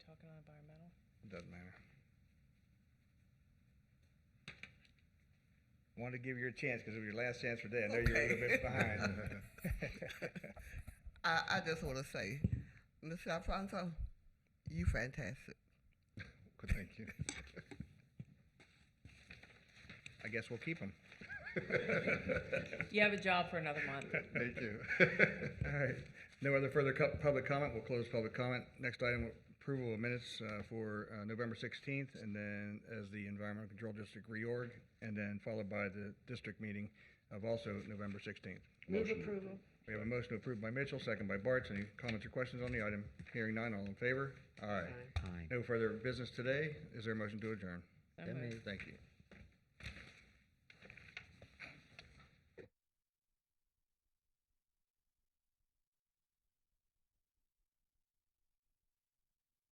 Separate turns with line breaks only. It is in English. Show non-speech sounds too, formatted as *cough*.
doesn't matter. Wanted to give you a chance because it was your last chance for today. I know you're a little bit
Okay.
behind.
I, I just want to say, Mr. Alfonso, you fantastic.
Good, thank you.
I guess we'll keep him.
You have a job for another month.
*laughs*
Thank you.
All right. No other further co- public comment. We'll close public comment. Next item, approval of minutes uh, for uh, November 16th, and then as the Environmental Control District reorg, and then followed by the district meeting of also November 16th.
Move approval.
We have a motion approved by Mitchell, second by Bartz. Any comments or questions on the item? Hearing none, all in favor? Aye.
Aye.
No further business today. Is there a motion to adjourn?
So
So
moved.
moved.
Thank you.